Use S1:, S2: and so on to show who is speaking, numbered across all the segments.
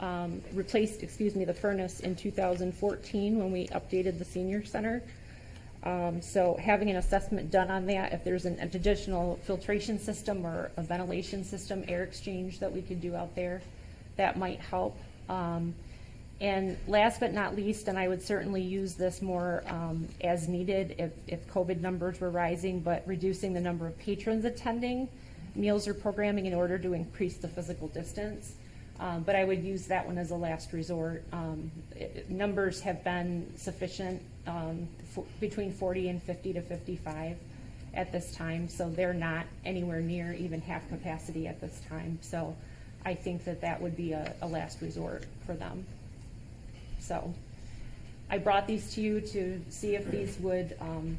S1: um, replaced, excuse me, the furnace in 2014 when we updated the senior center. Um, So having an assessment done on that, if there's an additional filtration system or a ventilation system, air exchange that we could do out there, that might help. Um, And last but not least, and I would certainly use this more um, as needed if, if COVID numbers were rising, but reducing the number of patrons attending meals or programming in order to increase the physical distance. Um, But I would use that one as a last resort. Um, it- it- Numbers have been sufficient, um, for- between 40 and 50 to 55 at this time, so they're not anywhere near even half capacity at this time. So I think that that would be a, a last resort for them. So I brought these to you to see if these would, um,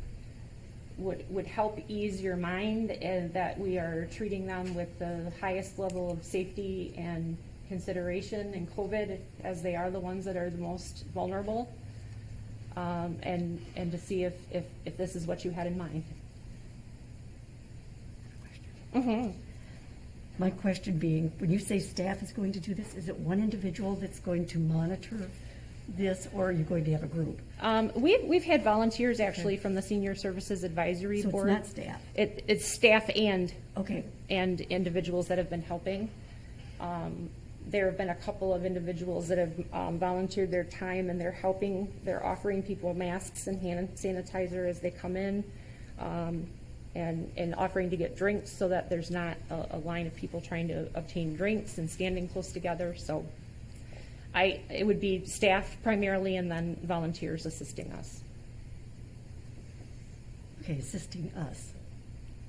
S1: would, would help ease your mind and that we are treating them with the highest level of safety and consideration in COVID as they are the ones that are the most vulnerable. Um, and, and to see if, if, if this is what you had in mind.
S2: My question being, when you say staff is going to do this, is it one individual that's going to monitor this, or are you going to have a group?
S1: Um, we've, we've had volunteers actually from the Senior Services Advisory
S2: So it's
S1: Board.
S2: not staff.
S1: It, it's staff and
S2: Okay,
S1: and individuals that have been helping. Um, There have been a couple of individuals that have um, volunteered their time and they're helping, they're offering people masks and hand sanitizer as they come in, um, and, and offering to get drinks so that there's not a, a line of people trying to obtain drinks and standing close together, so I, it would be staff primarily and then volunteers assisting us.
S2: okay, assisting us.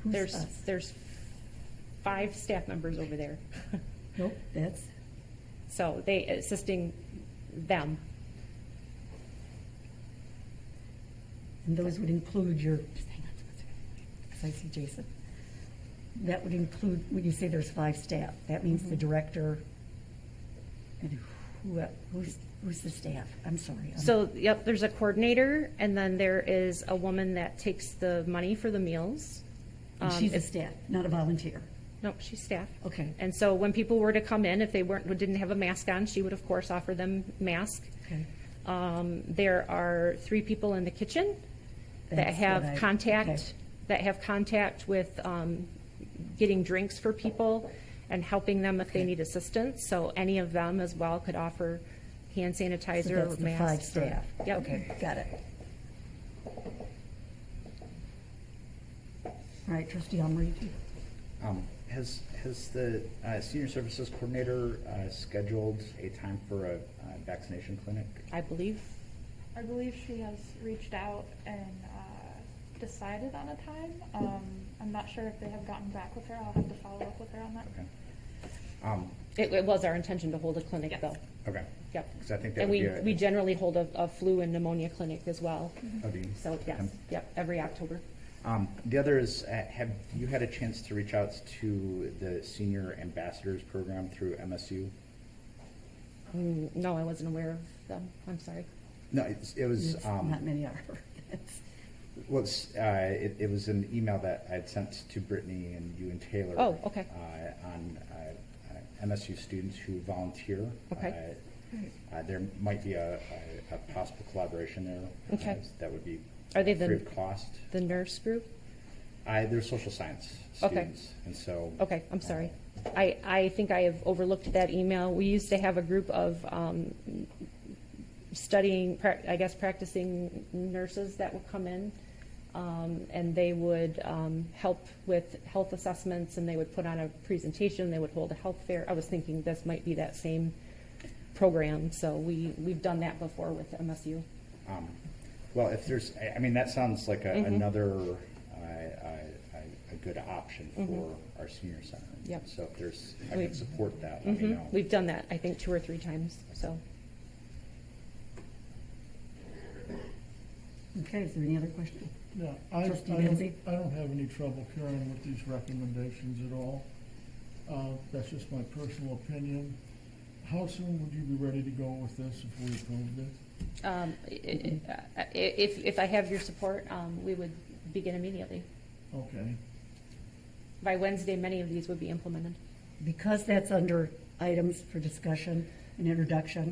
S2: Who's
S1: There's,
S2: us?
S1: there's five staff members over there.
S2: Nope, that's,
S1: So they assisting them.
S2: and those would include your, just hang on, just a second, 'cause I see Jason. That would include, when you say there's five staff, that means
S1: Mm-hmm.
S2: the director, and who, who's, who's the staff? I'm sorry. I'm-
S1: So, yep, there's a coordinator and then there is a woman that takes the money for the meals.
S2: and
S1: Um,
S2: She's a
S1: if-
S2: staff, not a volunteer.
S1: No, she's staff.
S2: Okay.
S1: And so when people were to come in, if they weren't, didn't have a mask on, she would of course offer them mask.
S2: Okay.
S1: Um, there are three people in the kitchen that
S2: That's what
S1: have
S2: I- okay.
S1: contact, that have contact with, um, getting drinks for people and helping them if they
S2: Okay.
S1: need assistance. So any of them as well could offer hand
S2: So
S1: sanitizer or masks.
S2: that's the five
S1: or-
S2: staff.
S1: Yep.
S2: Okay, got it. All right, trustee Elmery.
S3: Um, Has, has the uh, senior services coordinator uh, scheduled a time for a uh, vaccination clinic?
S1: I believe.
S4: I believe she has reached out and uh, decided on a time. Um, I'm not sure if they have gotten back with her. I'll have to follow up with her on that.
S3: Okay. Um,
S1: It, it was our intention to hold a clinic
S4: Yes.
S1: though.
S3: Okay.
S1: Yep.
S3: 'Cause I think that
S1: And
S3: would
S1: we,
S3: be a-
S1: we generally hold a, a flu and pneumonia clinic as well.
S3: Oh, do you?
S1: So, yes,
S3: Okay.
S1: yep, every October.
S3: Um, The other is, uh, have you had a chance to reach out to the senior ambassadors program through MSU?
S1: Mm, No, I wasn't aware of them. I'm sorry.
S3: No, it's- it was,
S2: It's
S3: um,
S2: Not many are.
S3: was, uh, it it was an email that I'd sent to Brittany and you and Taylor.
S1: Oh, okay.
S3: uh, On uh, uh, MSU students who volunteer.
S1: Okay.
S3: Uh, Uh, There might be a, a- a possible collaboration there.
S1: Okay.
S3: Uh, That would be.
S1: Are they the-
S3: Free of cost.
S1: The nurse group?
S3: I, they're social science
S1: Okay.
S3: students, and so. uh,
S1: Okay, I'm sorry. I, I think I have overlooked that email. We used to have a group of um, studying, prac- I guess practicing nurses that would come in, um, and they would um, help with health assessments, and they would put on a presentation, they would hold a health fair. I was thinking this might be that same program, so we, we've done that before with MSU.
S3: um, Well, if there's, I, I mean, that sounds like a-
S1: Mm-hmm.
S3: another, uh, uh, a, a good option for our senior center.
S1: Mm-hmm. Yep. Mm-hmm.
S3: So if there's, I
S1: We-
S3: can support that, let me know.
S1: We've done that, I think, two or three times, so.
S2: Okay, is there any other question?
S5: Yeah, I, I
S2: Trustee
S5: don't,
S2: Benzie?
S5: I don't have any trouble carrying with these recommendations at all. Uh, that's just my personal opinion. How soon would you be ready to go with this if we approved it?
S1: Um, i- i- i- If, if I have your support, um, we would begin immediately.
S5: Okay,
S1: By Wednesday, many of these would be implemented.
S2: Because that's under items for discussion, an introduction.